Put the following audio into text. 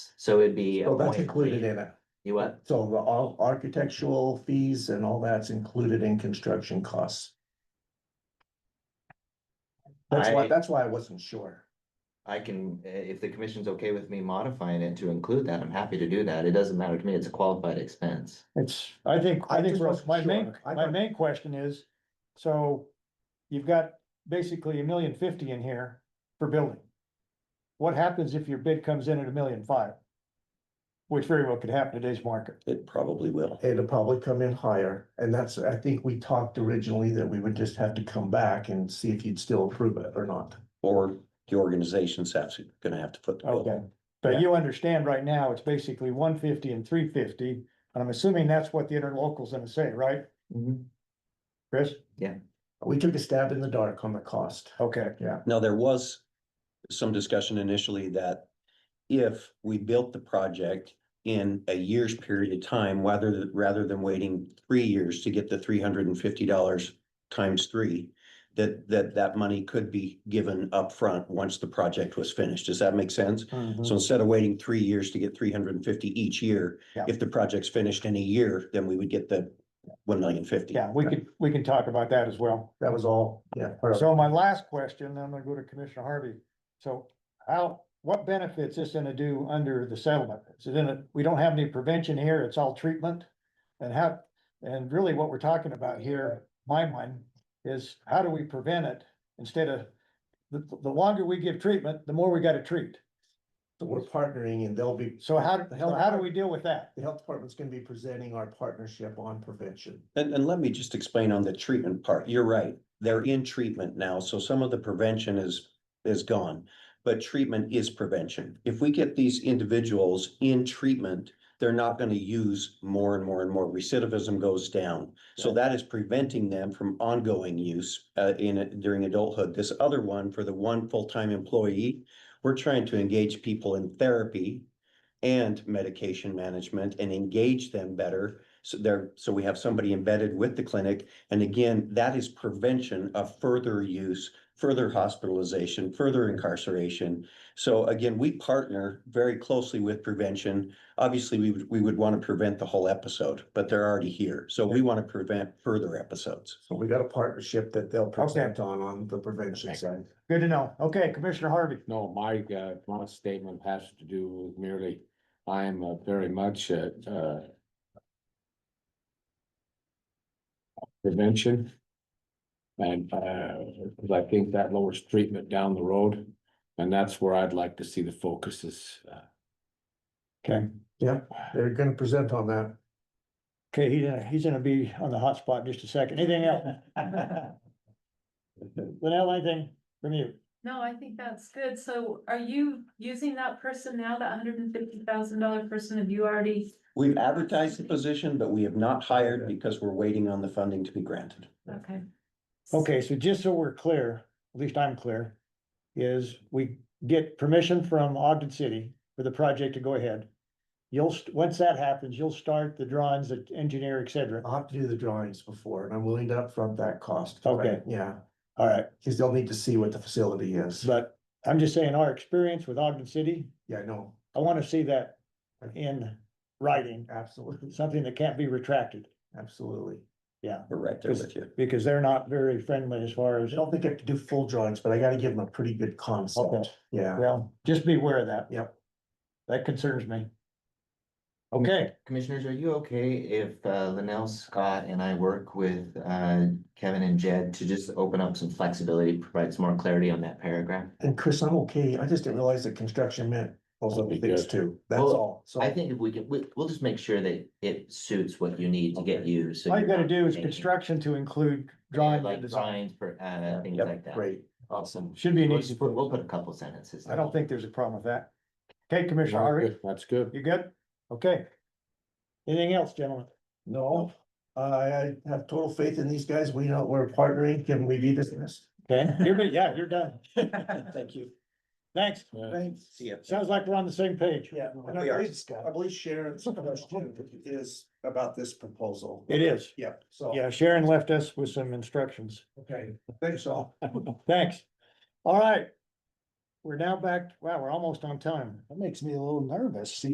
So it'd be. a So that's point included three. in it. You what? So the all architectural fees and all that's included in construction costs. That's why, I- that's why I wasn't sure. I can, i- if the commission's okay with me modifying it to include that, I'm happy to do that. It doesn't matter to me. It's a qualified expense. It's, I think, I I think just Russ, wasn't my main, sure. I my thought- main question is, so you've got basically a million fifty in here for building. What happens if your bid comes in at a million five? Which very well could happen in today's market. It probably will. It'll probably come in higher, and that's, I think we talked originally that we would just have to come back and see if you'd still approve it or not. Or the organization's actually gonna have to put the bill. Okay, but you understand right now, it's basically one fifty and three fifty, and I'm assuming that's what the interlocal's gonna say, right, Mm-hmm. Chris? We took a stab in the dark on the cost. Okay, Now, there was some discussion initially that if we built the project in a year's period of time, rather, rather than waiting three years to get the three hundred and fifty dollars times three, that, that, that money could be given upfront once the project was finished. Does that make sense? Mm-hmm. Mm-hmm. So instead of waiting three years to get three hundred and fifty each year, Yeah. if the project's finished in a year, then we would get the one million fifty. yeah, we could, we can talk about that as well. That was all, yeah. So my last question, then I'm gonna go to Commissioner Harvey. So how, what benefits is gonna do under the settlement? So then it- we don't have any prevention here, it's all treatment. And how, and really what we're talking about here, my mind, is how do we prevent it instead of the, the longer we give treatment, the more we gotta treat. So We're partnering and they'll be, So how, so how do we deal with that? the health department's gonna be presenting our partnership on prevention. And, and let me just explain on the treatment part. You're right. They're in treatment now, so some of the prevention is, is gone. But treatment is prevention. If we get these individuals in treatment, they're not gonna use more and more and more. Recidivism goes down. So that is preventing them from ongoing use, uh, in, during adulthood. This other one, for the one full-time employee, we're trying to engage people in therapy and medication management and engage them better so there, so we have somebody embedded with the clinic. And again, that is prevention of further use, further hospitalization, further incarceration. So again, we partner very closely with prevention. Obviously, we would, we would want to prevent the whole episode, but they're already here. So we want to prevent further episodes. So we got a partnership that they'll present on, on the prevention Okay. side. Good to know. Okay, Commissioner Harvey. No, my, uh, my statement has to do with merely, I am uh, very much, uh, uh, prevention. And, uh, 'cause I think that lowers treatment down the road, and that's where I'd like to see the focus is. uh, Okay. They're gonna present on that. Okay, he's gonna, he's gonna be on the hot spot in just a second. Anything else? Lynell, anything from you? No, I think that's good. So are you using that person now, that hundred and fifty thousand dollar person? Have you already? We've advertised the position, but we have not hired because we're waiting on the funding to be granted. Okay. Okay, so just so we're clear, at least I'm clear, is we get permission from Ogden City for the project to go ahead. You'll, st- once that happens, you'll start the drawings, the engineer, et cetera. I'll have to do the drawings before and I'm willing to upfront that cost. Okay. Yeah, All right, cause they'll need to see what the facility is. but I'm just saying our experience with Ogden City, Yeah, I know, I want to see that in writing, absolutely, something that can't be retracted, absolutely. We're right there with you. because they're not very friendly as far I as, don't think I have to do full drawings, but I gotta give them a pretty good Okay. concept. Yeah, well, just be aware of that. Yep. That concerns me. Okay, Commissioners, are you okay if uh, Linnell, Scott and I work with uh, Kevin and Jed to just open up some flexibility, provide some more clarity on that paragraph? and Chris, I'm okay. I just didn't realize that construction meant those other That'd be things good. too. That's Well, all. So I think if we can, we, we'll just make sure that it suits what you need to get you, so. all you you're gotta not do is making- construction to include Yeah, drawing and Like design. drawings for, uh, things Yep, like that. Great. Awesome. Should be an We'll easy, just put, we'll put a couple sentences. I don't think there's a problem with that. Okay, Commissioner Well, Harvey, good, That's good. you good? Okay. Anything else, gentlemen? No, I I have total faith in these guys. We know we're partnering. Can we be dismissed? Okay, you're, good. yeah, you're done. Thank you. Thanks. Yeah. Thanks. See ya. Sounds like we're on the same page. Yeah, and I We are. believe, I believe Sharon's question is about this proposal. It is. Yep, so. Yeah, Sharon left us with some instructions. Okay, thanks all. Thanks. All right. We're now back, wow, we're almost on time. That makes me a little nervous, see?